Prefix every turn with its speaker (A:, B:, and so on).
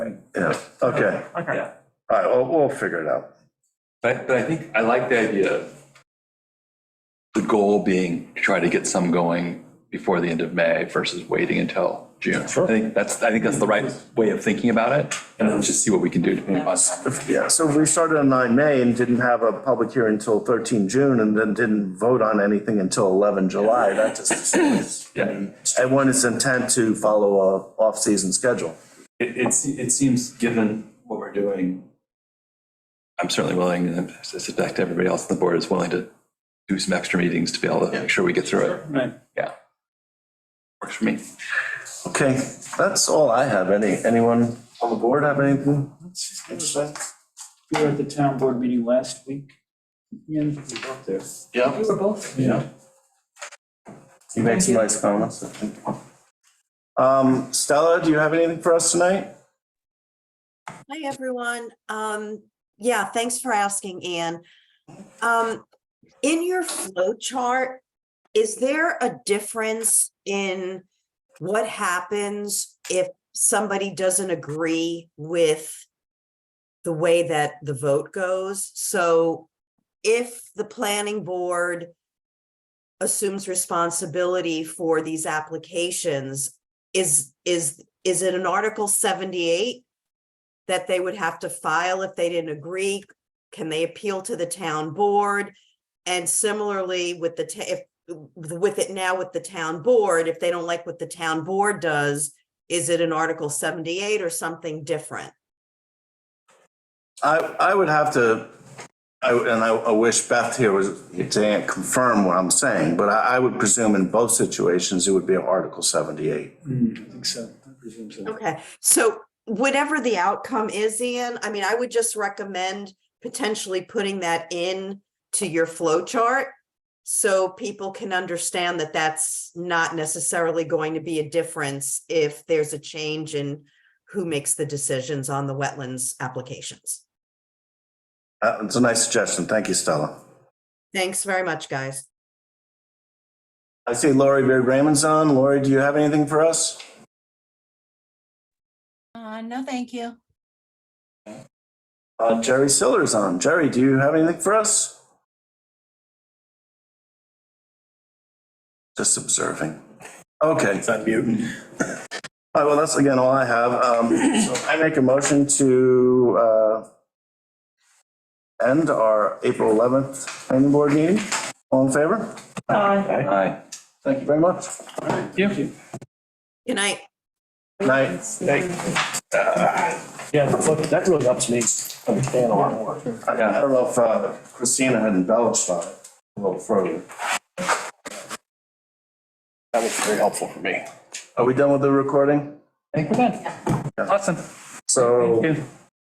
A: Yeah, okay,
B: Okay.
A: all right, we'll, we'll figure it out.
C: But, but I think, I like the idea of the goal being to try to get some going before the end of May versus waiting until June. I think that's, I think that's the right way of thinking about it, and let's just see what we can do. to on that.
A: Yeah, so if we started on 9 May and didn't have a public hearing until 13 June and then didn't vote on anything until 11 July, that just destroys.
C: Yeah.
A: And one is intent to follow a off-season schedule.
C: It, it, se- it seems, given what we're doing, I'm certainly willing, and I suspect everybody else on the board is willing to do some extra meetings to be able to make sure we get through it.
D: Right.
C: Yeah. Works for me.
A: Okay, that's all I have. Any, anyone on the board have anything?
D: We were at the town board meeting last week. Yeah, we got there.
A: Yeah.
E: We were both.
D: Yeah.
A: You make some nice comments. I think. Um, Stella, do you have anything for us tonight?
F: Hi, everyone. Um, yeah, thanks for asking, Anne. Um, in your flow chart, is there a difference in what happens if somebody doesn't agree with the way that the vote goes? So if the planning board assumes responsibility for these applications, is, is, is it an Article seventy-eight that they would have to file if they didn't agree? Can they appeal to the town board? And similarly with the, ta- if, with it now with the town board, if they don't like what the town board does, is it an Article seventy-eight or something different?
A: I, I would have to, I, and I, I wish Beth here was, to confirm what I'm saying, but I, I would presume in both situations, it would be Article seventy-eight.
D: Hmm, I think so, I presume so.
F: Okay, so whatever the outcome is, Ian, I mean, I would just recommend potentially putting that in to your flow chart. So people can understand that that's not necessarily going to be a difference if there's a change in who makes the decisions on the wetlands applications.
A: Uh, it's a nice suggestion. Thank you, Stella.
F: Thanks very much, guys.
A: I see Lori Beard Raymond's on. Lori, do you have anything for us?
E: Uh, no, thank you.
A: Uh, Jerry Siller's on. Jerry, do you have anything for us? Just observing. Okay. It's on mute. All right, well, that's again all I have. Um, so I make a motion to, uh, end our April 11th planning board meeting. All in favor?
E: Aye.
C: Aye.
A: Thank you very much.
D: Thank you.
F: Good night.
A: Night. Uh,
G: Yeah, that's what- that really helps me understand a lot more.
A: I I don't know if uh, Christina had embellished on it a little further.
G: That was very helpful for me.
A: Are we done with the recording?
C: Thank you, Ben. Awesome.
A: So
D: Thank you.